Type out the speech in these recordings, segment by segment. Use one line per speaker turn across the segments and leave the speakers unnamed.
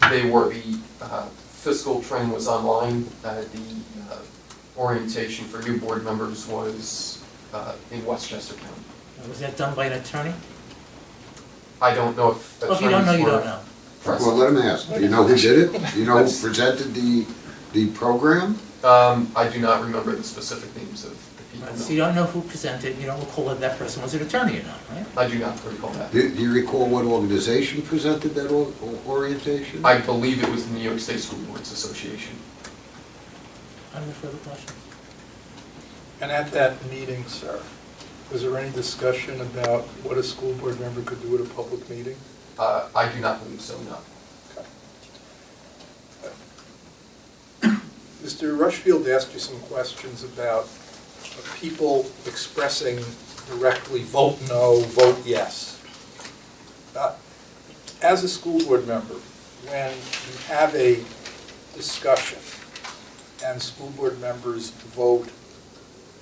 Saturday where the uh, fiscal train was online, uh, the uh, orientation for new board members was uh, in Westchester County.
Uh, Was that done by an attorney?
I don't know if
Oh, if you don't know,
attorneys
you don't
were
know.
present.
Well, let him ask. Do you know who did it? Do you know who presented the, the program?
Um, I do not remember the specific names of the
Right, So
people.
you
no.
don't know who presented, you don't recall if that person was an attorney or not, right?
I do not recall that.
Do do you recall what organization presented that or- or- orientation?
I believe it was the New York State School Boards Association.
I have no further questions.
And at that meeting, sir, was there any discussion about what a school board member could do at a public meeting?
Uh, I do not believe so, no.
Mr. Rushfield asked you some questions about people expressing directly, vote no, vote yes. Uh, As a school board member, when you have a discussion and school board members vote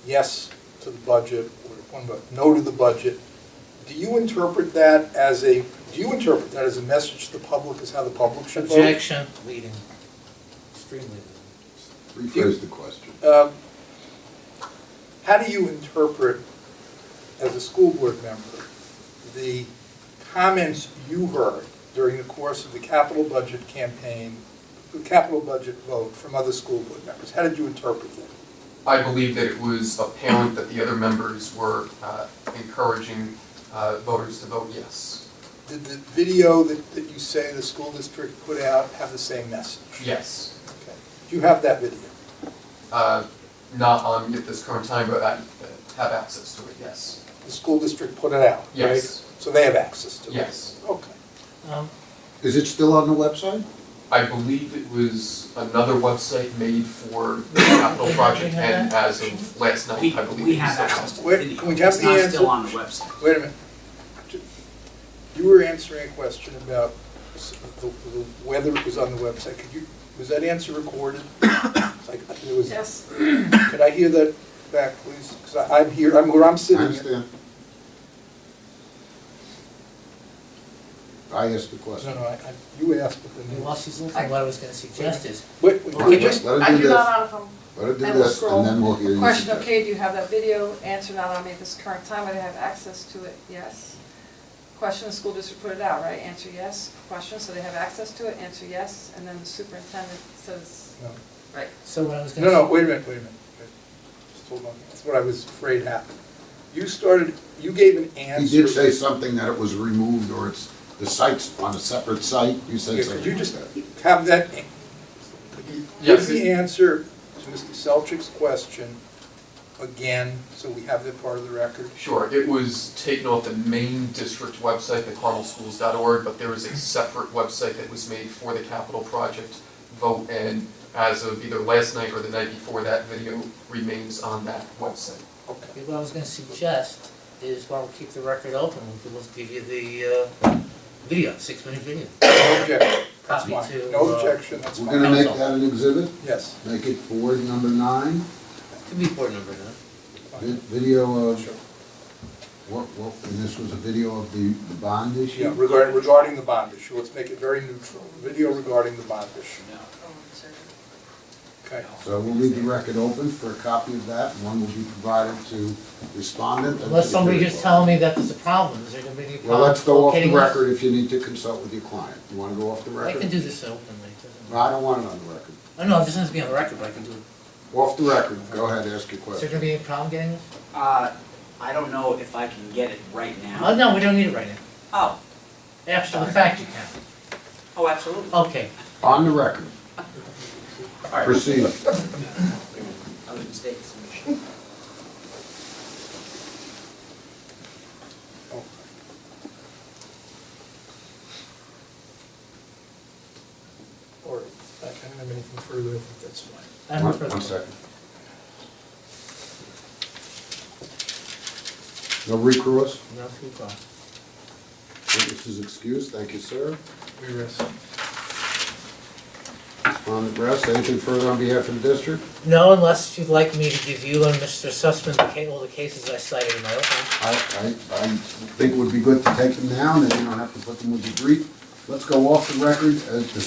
yes to the budget or one vote no to the budget, do you interpret that as a, do you interpret that as a message to the public, as how the public should vote?
Objection, leading, extremely leading.
Rephrase the question.
Um, How do you interpret, as a school board member, the comments you heard during the course of the capital budget campaign, the capital budget vote from other school board members? How did you interpret them?
I believe that it was apparent that the other members were uh, encouraging uh, voters to vote yes.
Did the video that, that you say the school district put out have the same message?
Yes.
Okay. Do you have that video?
Uh, Not on at this current time, but I uh, have access to it, yes.
The school district put it out, right?
Yes.
So they have access to it?
Yes.
Okay.
Um,
Is it still on the website?
I believe it was another website made for the capital project and as of last night,
We,
I believe.
we
it
have
was-
access to the
Wait,
video.
can we have the
It's not
answer?
still on the website.
Wait a minute. You were answering a question about s- the- the- whether it was on the website. Could you, was that answer recorded? Like, it was-
Yes,
Could I hear that back, please? Because I'm here, I'm where I'm
I
sitting. No,
understand. I asked the question.
no, I, I- you asked, but then
and
you
While she's looking, what I was gonna suggest is,
Wait, wait,
All right,
wait, just,
Let
I
him
do
do this.
not have
Let him do
I will
this, and then we'll hear
a
you.
question, okay, do you have that video? Answer not on me at this current time, I have access to it, yes. Question, the school district put it out, right? Answer yes. Question, so they have access to it, answer yes, and then the superintendent says,
no.
right.
so what I was gonna.
No, no, wait a minute, wait a minute. Wait. Just hold on. That's what I was afraid happened. You started, you gave an answer.
He did say something that it was removed, or it's, the site's on a separate site, you
Yeah,
said
could
something.
you
like
just
that.
have that, could you
Yes.
give the answer to Mr. Selchik's question again, so we have that part of the record?
Sure, it was taken off the main district website, the carmelschools.org, but there was a separate website that was made for the capital project vote, and as of either last night or the night before, that video remains on that website.
Okay.
What I was gonna suggest is while we keep the record open, we could just give you the, uh, video, six-minute video.
No objection, that's
Copy
fine.
to,
No
uh,
objection, that's
We're
fine.
gonna make that an exhibit,
Yes.
make it board number nine,
Could be board number nine.
vi- video of,
Sure.
what, what, and this was a video of the, the bond
Yeah,
issue?
regarding, regarding the bond issue, let's make it very neutral. Video regarding the bond issue,
Oh, sorry.
okay?
So we'll leave the record open for a copy of that, and one will be provided to respondent. and to
Unless
the
somebody
jury.
just tell me that there's a problem, is there gonna be any problem?
Well, let's go off the
locating this?
record if you need to consult with your client. You wanna go off the
I
record?
can do this openly, it doesn't
No, I don't want it on the record.
I know, this has to be on the record, but I can do it.
Off the record, go ahead, ask your
Is there
question.
gonna be any problem getting this?
Uh, I don't know if I can get it right
Oh,
now.
no, we don't need it right now.
Oh,
After the fact, you can.
oh, absolutely.
Okay,
On the record,
All right,
proceed.
other mistakes.
Okay. All right, I don't have anything further, I think that's fine.
I have no
One-
further
One second. No recourse,
No, keep going.
witness is excused, thank you, sir.
We rest.
On the rest, anything further on behalf of the district?
No, unless you'd like me to give you and Mr. Sussman the ca- all the cases I cited in my opening.
I, I, I think it would be good to take them down, and you don't have to put them with the brief. Let's go off the record as the